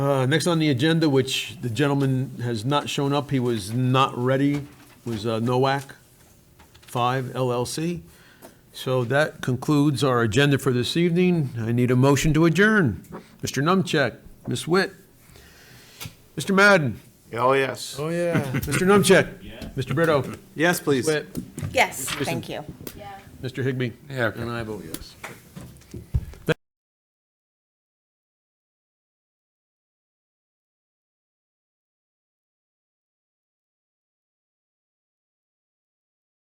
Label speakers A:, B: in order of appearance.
A: Uh, Next on the agenda, which the gentleman has not shown up, he was not ready, was uh, Nowak 5 LLC. So that concludes our agenda for this evening. I need a motion to adjourn. Mr. Numcheck, Ms. Witt, Mr. Madden.
B: Oh, yes.
A: Oh, yeah. Mr. Numcheck. Mr. Brito.
C: Yes, please.
A: Witt.
D: Yes, thank you.
A: Mr. Higbee.
E: Yeah, okay.
A: And I vote yes.